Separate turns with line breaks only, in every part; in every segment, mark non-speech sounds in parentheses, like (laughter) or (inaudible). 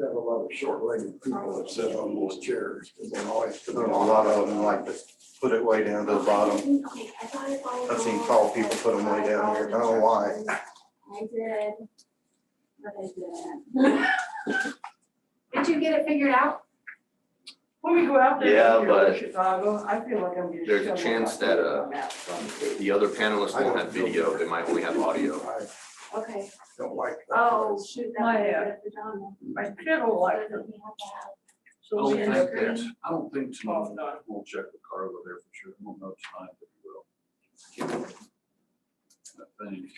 have a lot of short-legged people that sit on those chairs. and they always
There's a lot of them like to put it way down to the bottom.
I've
I've seen tall people put 'em way down here. I don't know why.
I did. But I didn't. Did you get it figured out?
When we go out
Yeah,
there,
but
in Chicago, I feel like I'm getting.
there's a
shoveled
chance
out
that,
there
uh,
on that front.
The other panelists
I don't
won't have video, they might only have audio.
I
Okay.
don't like that.
Oh, shoot, that
My,
was
uh,
a good pajama.
I feel like
Doesn't
them.
he have that?
So
Oh,
don't
we end up
think
getting-
there's, I don't think
Oh,
tomorrow,
no.
we'll check with Carla there for sure, I don't know tonight, but we will. I think.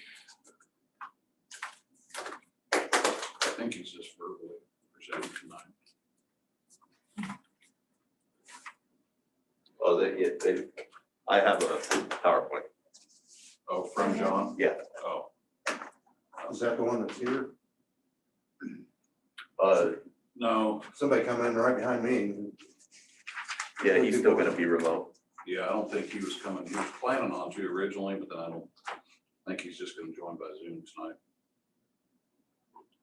I think it's just verbally presented tonight.
Oh, they, yeah, they, I have a PowerPoint.
Oh, from John?
Yeah.
Oh,
Is that the one that's here?
Uh,
no,
Somebody come in right behind me.
yeah, he's still gonna be remote.
yeah, I don't think he was coming, he was planning on to originally, but then I don't I think he's just gonna join by Zoom tonight.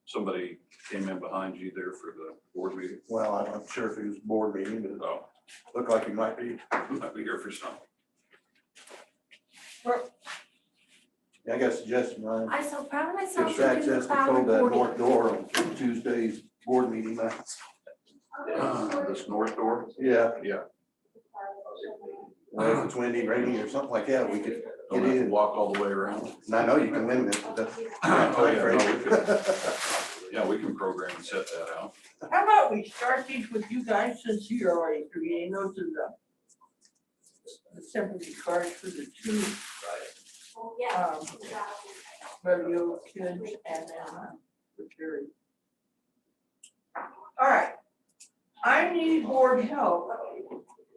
Somebody came in behind you there for the board meeting, (laughs)
Well, I'm not sure if he was board meeting, but
oh,
it looked like he might be.
might be here for something.
I got a suggestion, Ryan.
I'm so proud of myself.
Gives
for doing
access
the cloud
control that
recording.
north door on Tuesday's board meeting nights.
Uh, This north door?
Yeah, uh,
Well,
well, if it's windy, rainy or something like that, we could,
Don't have to walk all the
(clears throat)
way around.
and I know you can limit it, but that's.
Oh, yeah, no, we
That's
Yeah, we can program and set that out.
How about we start these with you guys since you're already creating those are the the sympathy cards for the two
yeah.
um rodeo kids and then uh, the jury. All right. I need board help,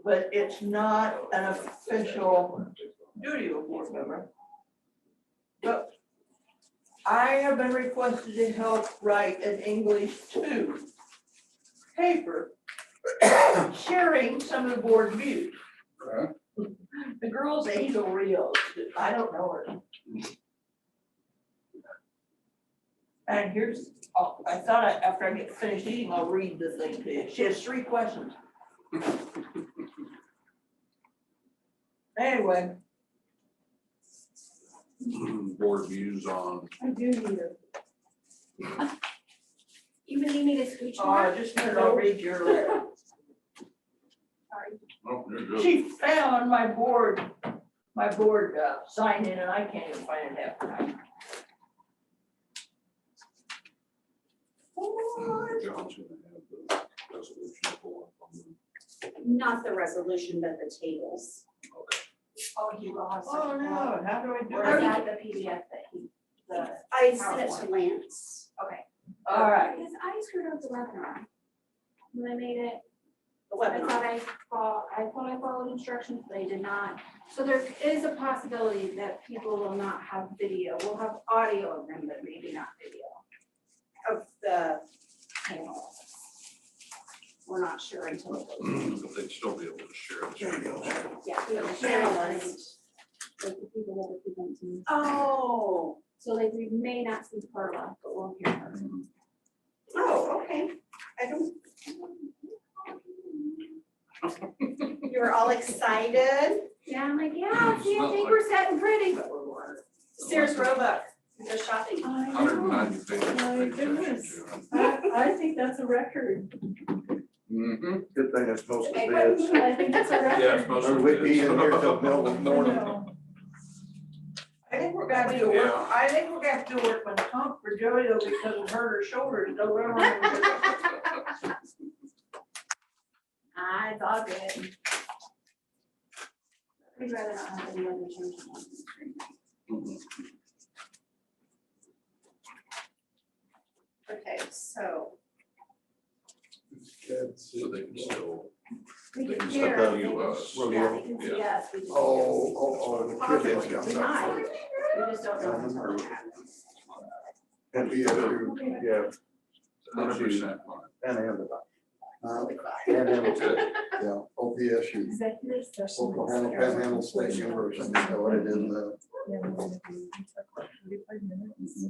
but it's not an official duty of a board member. But I have been requested to help write an English two paper sharing some of the board views. The girls angel reels, I don't know her. And here's, oh, I thought I- after I get finished eating, I'll read the thing to you. She has three questions. Anyway,
(clears throat) Board views on,
I do need it. Even you need a speech
oh, I
mark?
just wanted to read your letter.
Sorry.
oh, there it
She found my board, my board uh, sign in and I can't even find it half the time.
goes. John's gonna have the resolution pull up on the-
not the resolution, but the tables.
Oh, you lost.
Oh, no, how do I do
Or is
that?
that the PDF that he, the?
I sent it to Lance.
All right.
Because I screwed up the webinar. When I made it,
The
I
webinar.
thought I followed, I thought I followed instructions, they did not. So there is a possibility that people will not have video, we'll have audio of them, but maybe not video.
of the panel. We're not sure until it goes.
Mm.
But they'd still be able to share the
Yeah,
Yeah,
the
panelists.
panelists.
Like the people that are presenting.
Oh,
So like we may not see Carla, but we'll hear her.
screen.
oh, okay. I don't, (laughs) you were all excited.
Yeah, I'm like, yeah, see, I think we're setting pretty, but we're bored.
Sears Roebuck, the shopping.
Hundred and ninety
My goodness. I, I think that's a record.
Mm-hmm.
(laughs) Good thing it's mostly
I
beds.
think that's a record.
Yeah, it's mostly.
Or we'd be in here
(laughs)
till
kids.
middle of the morning.
I think we're gonna have to work,
Yeah.
I think we're gonna have to work on comp for Joey though because of her, her shoulders, no rubber.
Ah, it's all good. We'd rather not have any other changes on the screen.
Okay, so
Kids.
Oh,
So they can still,
We
they
can
can
hear.
still
they
view
can-
us.
Yeah, they can
uh,
see
Yeah.
us. we just-
Oh, oh, oh, the
Possibly
crickets got
tonight.
that.
We just don't know until it happens.
And the other, yeah,
hundred percent.
and the.
Uh,
goodbye.
Panhandle,
Good.
yeah, OPSU,
(laughs) Executive session.
Oklahoma
uh,
Panhandle State University, is what it is now.